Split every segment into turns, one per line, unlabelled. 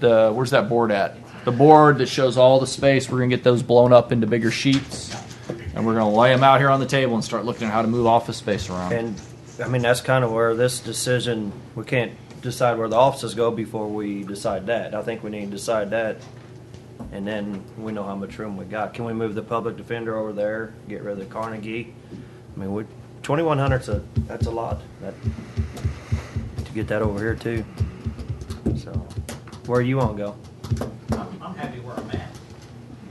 the where's that board at? The board that shows all the space. We're gonna get those blown up into bigger sheets, and we're gonna lay them out here on the table and start looking at how to move office space around.
And, I mean, that's kind of where this decision, we can't decide where the offices go before we decide that. I think we need to decide that, and then we know how much room we got. Can we move the public defender over there, get rid of the Carnegie? I mean, we, twenty-one hundred's a, that's a lot, that, to get that over here too. So, where you wanna go?
I'm, I'm happy where I'm at.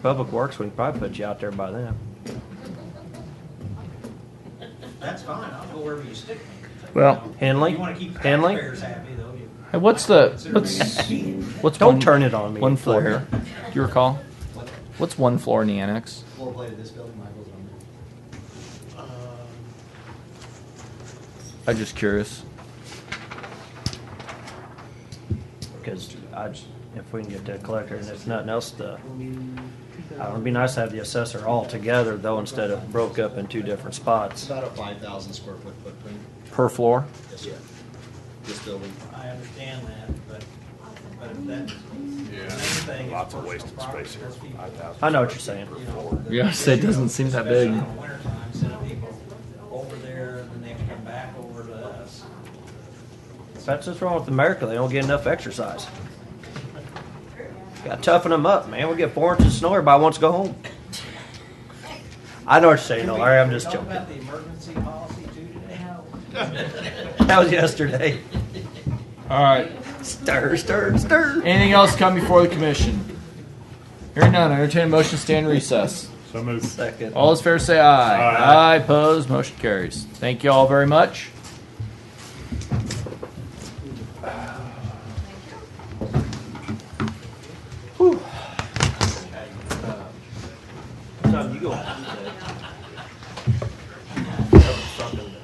Public Works, we can probably put you out there by then.
That's fine. I'll go wherever you stick me.
Well-
Henley?
You want to keep the
Henley?
taxpayers happy, though. you-
Hey, what's the
Consider
what's
being a
what's
Don't
one-
turn it on me,
One floor
Florida.
here. Do you recall? What's one floor in the annex?
Floor plate of this building, Michael's on there.
Uh,
I'm just curious.
Because I, j- if we can get to a collector and it's nothing else, the, I would be nice to have the assessor all together though, instead of broke up in two different
It's
spots.
about a five thousand square foot footprint.
Per floor.
Yes, sir. This building.
I understand that, but, but if that's. Yeah.
Lots of wasted space here.
I know what you're saying.
Yeah, so it doesn't seem that big.
Wintertime, sending people over there and then they come back over to us.
That's what's wrong with America. They don't get enough exercise. Got to toughen them up, man. We get four inches of snow. Everybody wants to go home. I know what you're saying,
Can we-
Larry. I'm
can we
just
talk
joking.
About the emergency policy too today.
That was yesterday.
All right.
Stir, stir, stir.
Anything else come before the commission? Hearing none, I entertain a motion to stand in recess.
So moved.
Second.
All those fair say aye.
Aye.
Aye, opposed, motion carries. Thank you all very much.
Tom, you go.